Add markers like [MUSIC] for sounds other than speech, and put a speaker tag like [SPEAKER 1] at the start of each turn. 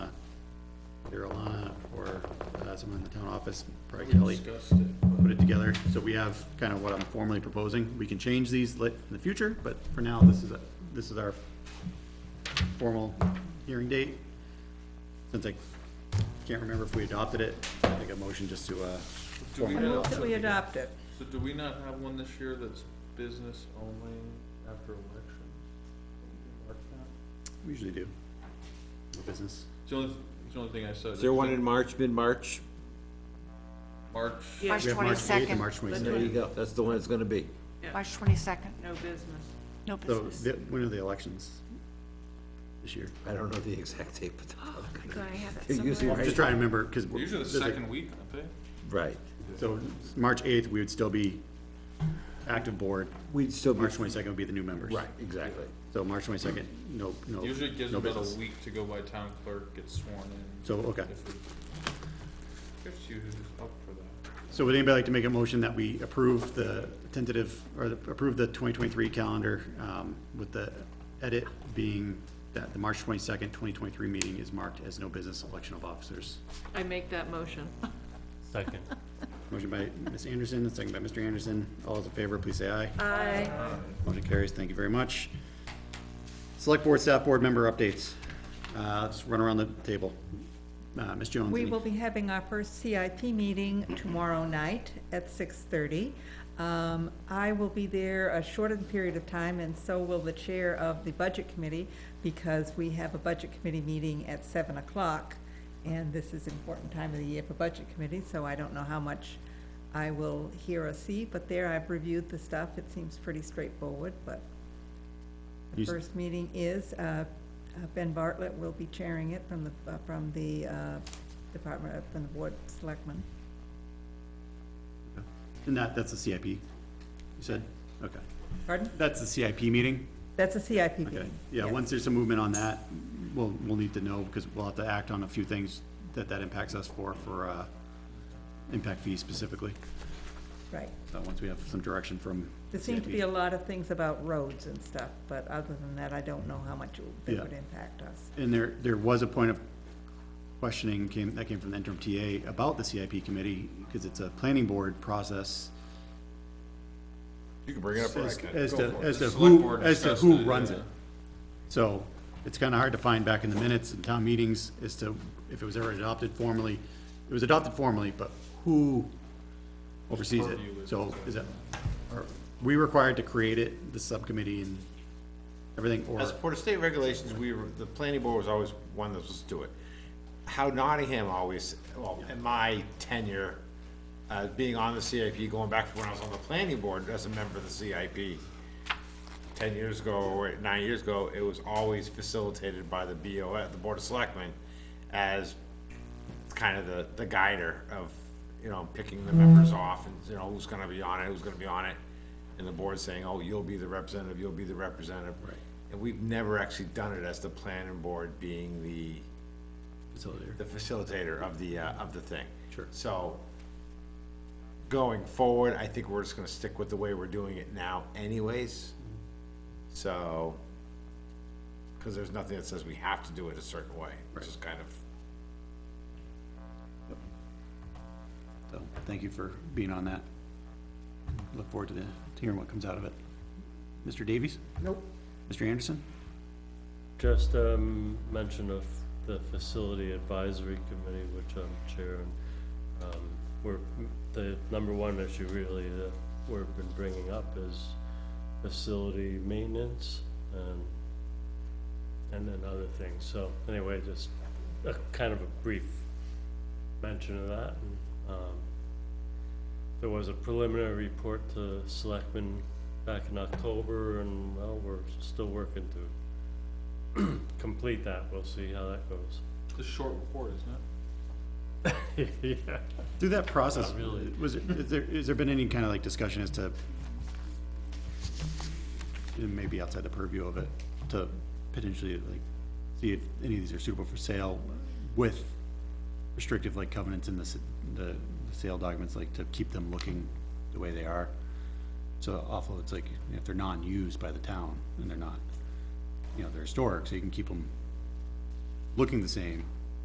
[SPEAKER 1] Carolina or uh, someone in the town office, probably
[SPEAKER 2] We
[SPEAKER 1] Kelly,
[SPEAKER 2] discussed it, but-
[SPEAKER 1] put it together. So we have kind of what I'm formally proposing. We can change these lit- in the future, but for now, this is, a- this is our formal hearing date. Since I can't remember if we adopted it, I think a motion just to, uh,
[SPEAKER 2] Do we
[SPEAKER 1] formally
[SPEAKER 3] I move
[SPEAKER 2] not-
[SPEAKER 3] that we adopt it.
[SPEAKER 2] So do we not have one this year that's business only after elections? Mark that?
[SPEAKER 1] we usually do. No business.
[SPEAKER 2] It's the only, it's the only thing I said.
[SPEAKER 4] Is there one in March, mid-March?
[SPEAKER 2] March,
[SPEAKER 3] Yeah.
[SPEAKER 5] March
[SPEAKER 1] We have March 8th and
[SPEAKER 5] 22nd.
[SPEAKER 1] March
[SPEAKER 4] There
[SPEAKER 1] 22nd.
[SPEAKER 4] you go, that's the one it's gonna be.
[SPEAKER 5] March 22nd,
[SPEAKER 3] No business.
[SPEAKER 5] no
[SPEAKER 1] So,
[SPEAKER 5] business.
[SPEAKER 1] the- when are the elections this year?
[SPEAKER 4] I don't know the exact date, but. [LAUGHS] Oh,
[SPEAKER 5] God, I have it
[SPEAKER 4] You're usually
[SPEAKER 5] somewhere.
[SPEAKER 4] right.
[SPEAKER 1] Just trying to remember, because.
[SPEAKER 2] usually the second week, I think.
[SPEAKER 4] Right.
[SPEAKER 1] So March 8th, we would still be active board.
[SPEAKER 4] We'd still be,
[SPEAKER 1] March 22nd would be the new members.
[SPEAKER 4] right, exactly.
[SPEAKER 1] So March 22nd, no, no.
[SPEAKER 2] Usually it gives
[SPEAKER 1] Oh, no
[SPEAKER 2] them about
[SPEAKER 1] business.
[SPEAKER 2] a week to go by town clerk, get sworn in.
[SPEAKER 1] So, okay.
[SPEAKER 2] If we- If you who's up for that.
[SPEAKER 1] So would anybody like to make a motion that we approve the tentative, or the- approve the 2023 calendar um, with the edit being that the March 22nd, 2023 meeting is marked as no business election of officers?
[SPEAKER 3] I make that motion.
[SPEAKER 6] Second.
[SPEAKER 1] Motion by Ms. Anderson, and second by Mr. Anderson. All those in favor, please say aye.
[SPEAKER 3] Aye.
[SPEAKER 1] Motion carries. Thank you very much. Select Board, Staff Board Member Updates. Uh, Let's run around the table. Uh, Ms. Jones?
[SPEAKER 7] We
[SPEAKER 1] any-
[SPEAKER 7] will be having our first CIP meeting tomorrow night at six thirty. Um, I will be there a shortened period of time, and so will the chair of the budget committee, because we have a budget committee meeting at seven o'clock, and this is important time of the year for budget committee, so I don't know how much I will hear or see, but there I've reviewed the stuff, it seems pretty straightforward, but the
[SPEAKER 1] You s-
[SPEAKER 7] first meeting is, uh, uh, Ben Bartlett will be chairing it from the, uh, from the uh, Department, of- from the Board of Selectmen.
[SPEAKER 1] And that, that's the CIP, you said? Okay.
[SPEAKER 7] Pardon?
[SPEAKER 1] That's the CIP meeting?
[SPEAKER 7] That's a CIP
[SPEAKER 1] Okay.
[SPEAKER 7] meeting.
[SPEAKER 1] Yeah,
[SPEAKER 7] yes.
[SPEAKER 1] once there's some movement on that, we'll, we'll need to know because we'll have to act on a few things that that impacts us for, for uh, impact fees specifically.
[SPEAKER 7] Right.
[SPEAKER 1] So once we have some direction from.
[SPEAKER 7] There seem to
[SPEAKER 1] CIP.
[SPEAKER 7] be a lot of things about roads and stuff, but other than that, I don't know how much it- they
[SPEAKER 1] Yeah.
[SPEAKER 7] would impact us.
[SPEAKER 1] And there, there was a point of questioning came, that came from the interim TA about the CIP committee, because it's a planning board process.
[SPEAKER 2] You can bring it
[SPEAKER 1] up, or I As- can. as
[SPEAKER 2] Go
[SPEAKER 1] to-
[SPEAKER 2] for it.
[SPEAKER 1] as
[SPEAKER 2] The
[SPEAKER 1] to
[SPEAKER 2] select
[SPEAKER 1] who-
[SPEAKER 2] board uh,
[SPEAKER 1] as to
[SPEAKER 2] discussed
[SPEAKER 1] who
[SPEAKER 2] it,
[SPEAKER 1] runs
[SPEAKER 2] yeah.
[SPEAKER 1] it. So it's kind of hard to find back in the minutes and town meetings as to if it was ever adopted formally. It was adopted formally, but who oversees it?
[SPEAKER 2] Purview is-
[SPEAKER 1] So is it, are we required to create it, the subcommittee and everything, or?
[SPEAKER 4] As part of state regulations, we, were- the planning board was always one that was do it. How Nottingham always, well, in my tenure, uh, being on the CIP, going back to when I was on the planning board as a member of the CIP, ten years ago, or nine years ago, it was always facilitated by the BOS, the Board of Selectmen, as kind of the, the guider of, you know, picking the members off and, you know, who's gonna be on it, who's gonna be on it. And the board saying, oh, you'll be the representative, you'll be the representative. Right. And we've never actually done it as the planning board being the,
[SPEAKER 1] Facilitator.
[SPEAKER 4] the facilitator of the, uh, of the thing.
[SPEAKER 1] Sure.
[SPEAKER 4] So, going forward, I think we're just gonna stick with the way we're doing it now anyways. So, cause there's nothing that says we have to do it a certain way, which is kind of
[SPEAKER 1] So, thank you for being on that. Look forward to the, to hearing what comes out of it. Mr. Davies? Nope. Mr. Anderson?
[SPEAKER 6] Just, um, mention of the Facility Advisory Committee, which I'm chair, and, um, we're, the number one issue really that we've been bringing up is facility maintenance and, and then other things. So anyway, just a kind of a brief mention of that. and, Um, there was a preliminary report to selectmen back in October, and, well, we're still working to complete that, we'll see how that goes.
[SPEAKER 2] It's a short report, isn't it?
[SPEAKER 6] Yeah.
[SPEAKER 1] Through that process,
[SPEAKER 6] Not really.
[SPEAKER 1] was, it- is there, has there been any kind of like discussion as to, and maybe outside the purview of it, to potentially like, see if any of these are suitable for sale with restrictive like covenants in the, s- the the sale documents, like to keep them looking the way they are? So awful, it's like, if they're non-used by the town, and they're not, you know, they're historic, so you can keep them looking the same,